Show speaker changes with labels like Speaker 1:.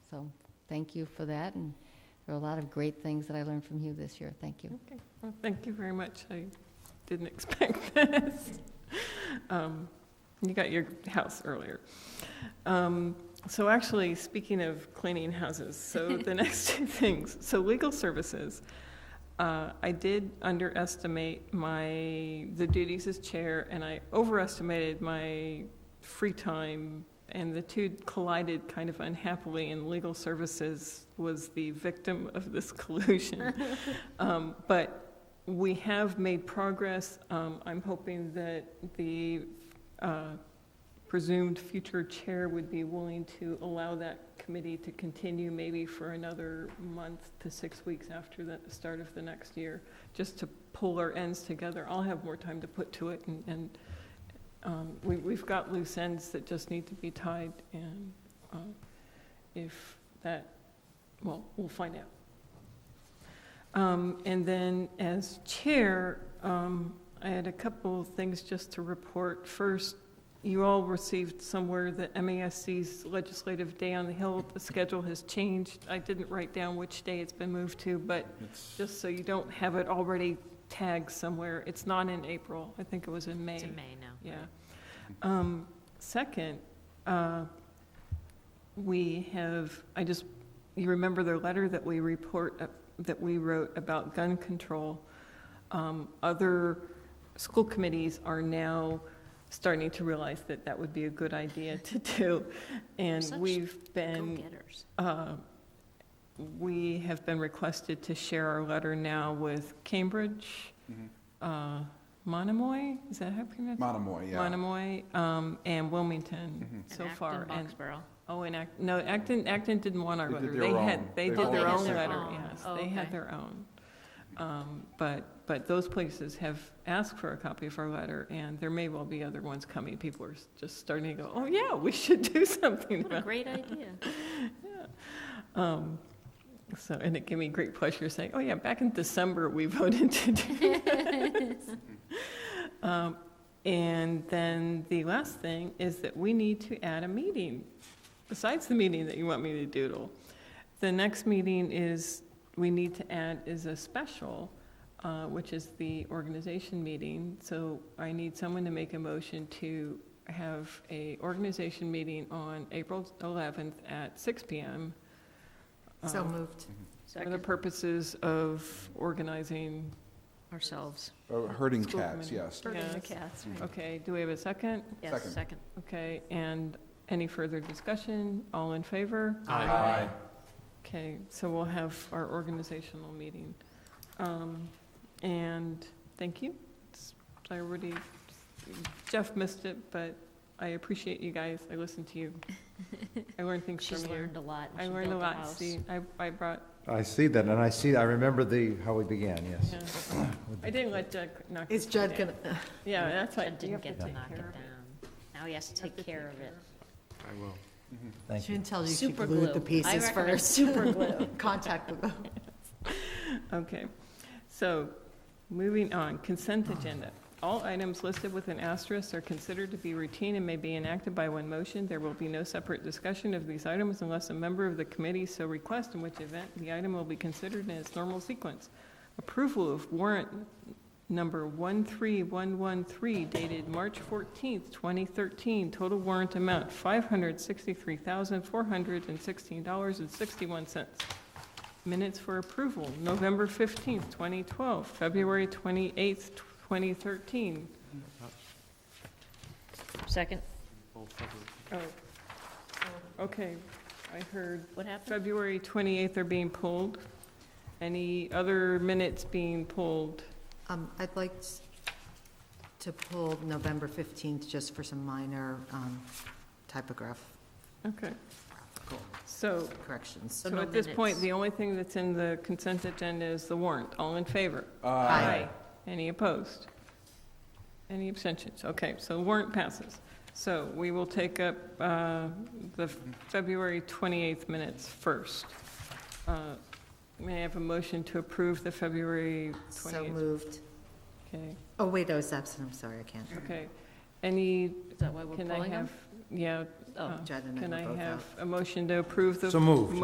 Speaker 1: So thank you for that, and there are a lot of great things that I learned from you this year. Thank you.
Speaker 2: Well, thank you very much. I didn't expect this. Um, You got your house earlier. Um, So actually, speaking of cleaning houses, so the next two things, so legal services. uh, I did underestimate my, the duties as chair, and I overestimated my free time, and the two collided kind of unhappily, and legal services was the victim of this collusion. Um, But we have made progress. Um, I'm hoping that the uh, presumed future chair would be willing to allow that committee to continue maybe for another month to six weeks after the start of the next year, just to pull our ends together. I'll have more time to put to it, and- and um, we- we've got loose ends that just need to be tied, and um, if that, well, we'll find out. Um, And then as chair, um, I had a couple of things just to report. First, you all received somewhere the MASC's Legislative Day on the Hill. The schedule has changed. I didn't write down which day it's been moved to, but
Speaker 3: It's-
Speaker 2: just so you don't have it already tagged somewhere, it's not in April. I think it was in May.
Speaker 4: It's in May now.
Speaker 2: Yeah. Um, Second, uh, we have, I just, you remember the letter that we report, uh, that we wrote about gun control? Um, Other school committees are now starting to realize that that would be a good idea to do. And
Speaker 4: Such
Speaker 2: we've been
Speaker 4: Go-getters.
Speaker 2: uh, We have been requested to share our letter now with Cambridge,
Speaker 3: mhm.
Speaker 2: uh, Monomoy, is that how you pronounce it?
Speaker 3: Monomoy, yeah.
Speaker 2: Monomoy, um, and Wilmington
Speaker 3: Mhm.
Speaker 2: so
Speaker 4: And
Speaker 2: far.
Speaker 4: Acton, Boxborough.
Speaker 2: Oh, and Act, no, Acton, Acton didn't want our
Speaker 3: They did
Speaker 2: letter.
Speaker 3: their
Speaker 2: They
Speaker 3: own.
Speaker 2: had, they
Speaker 3: They
Speaker 2: did
Speaker 3: Oh,
Speaker 2: their
Speaker 3: they
Speaker 2: own
Speaker 3: did their
Speaker 2: letter,
Speaker 4: own.
Speaker 2: yes.
Speaker 4: Oh,
Speaker 2: They had
Speaker 4: okay.
Speaker 2: their own. Um, But, but those places have asked for a copy of our letter, and there may well be other ones coming. People are just starting to go, oh, yeah, we should do something
Speaker 4: What a
Speaker 2: about
Speaker 4: great idea.
Speaker 2: um, So, and it gave me great pleasure saying, oh yeah, back in December, we voted to do this. Um, And then the last thing is that we need to add a meeting, besides the meeting that you want me to doodle. The next meeting is, we need to add is a special, uh, which is the organization meeting. So I need someone to make a motion to have a organization meeting on April 11th at 6 PM.
Speaker 5: So
Speaker 2: um,
Speaker 5: moved.
Speaker 2: for the
Speaker 4: Second
Speaker 2: purposes of organizing,
Speaker 4: ourselves.
Speaker 3: Oh, Herding
Speaker 2: School
Speaker 3: cats,
Speaker 2: committee.
Speaker 3: yes.
Speaker 4: Herding the
Speaker 2: Yes.
Speaker 4: cats, right.
Speaker 2: okay, do we have a second?
Speaker 4: Yes,
Speaker 3: Second.
Speaker 4: second.
Speaker 2: Okay, and any further discussion? All in favor?
Speaker 3: Aye.
Speaker 2: Okay, so we'll have our organizational meeting. Um, And thank you. It's- I already, Jeff missed it, but I appreciate you guys. I listened to you. I learned things
Speaker 4: She's
Speaker 2: from you.
Speaker 4: learned a lot. and
Speaker 2: I
Speaker 4: she
Speaker 2: learned a
Speaker 4: built
Speaker 2: lot,
Speaker 4: house.
Speaker 2: see, I, I brought,
Speaker 6: I see that, and I see, I remember the, how we began, yes.
Speaker 2: yeah. I didn't let Judd knock.
Speaker 5: Is
Speaker 2: this
Speaker 5: Judd
Speaker 2: down.
Speaker 5: gonna,
Speaker 2: Yeah, that's why.
Speaker 4: Ted
Speaker 2: you
Speaker 4: didn't
Speaker 2: have
Speaker 4: get
Speaker 2: to
Speaker 4: to
Speaker 2: take
Speaker 4: knock it
Speaker 2: care
Speaker 4: down.
Speaker 2: of
Speaker 4: Now he has to take care of it.
Speaker 7: I will.
Speaker 6: Thank
Speaker 5: she
Speaker 6: you.
Speaker 5: didn't tell you she
Speaker 4: Super
Speaker 5: glued the
Speaker 4: glue. I
Speaker 5: pieces
Speaker 4: recommend
Speaker 5: first.
Speaker 4: super glue.
Speaker 5: Contact glue.
Speaker 2: Okay, so, moving on, consent agenda. All items listed with an asterisk are considered to be routine and may be enacted by one motion. There will be no separate discussion of these items unless a member of the committee so requests, in which event the item will be considered in its normal sequence. Approval of warrant number 13113 dated March 14th, 2013. Total warrant amount $563,416.61. Minutes for approval, November 15th, 2012, February 28th, 2013.
Speaker 4: Second,
Speaker 2: Oh, okay, I heard
Speaker 4: what happened?
Speaker 2: February 28th are being pulled. Any other minutes being pulled?
Speaker 5: Um, I'd like s- to pull November 15th just for some minor um, typographical
Speaker 2: Okay, so,
Speaker 5: corrections.
Speaker 2: so
Speaker 4: no
Speaker 2: at this point,
Speaker 4: minutes.
Speaker 2: the only thing that's in the consent agenda is the warrant. All in favor?
Speaker 5: Aye.
Speaker 2: Any opposed? Any abstentions? Okay, so warrant passes. So we will take up uh, the February 28th minutes first. Uh, May I have a motion to approve the February
Speaker 5: So
Speaker 2: 28th?
Speaker 5: moved.
Speaker 2: Okay,
Speaker 5: Oh, wait, I was absent, I'm sorry, I can't.
Speaker 2: okay. Any,
Speaker 4: Is that why we're
Speaker 2: can I
Speaker 4: pulling them?
Speaker 2: have, yeah,
Speaker 4: Oh.
Speaker 2: uh,
Speaker 5: Judd and I
Speaker 2: can
Speaker 5: were
Speaker 2: I
Speaker 5: both out.
Speaker 2: have a motion to approve the?
Speaker 6: So moved.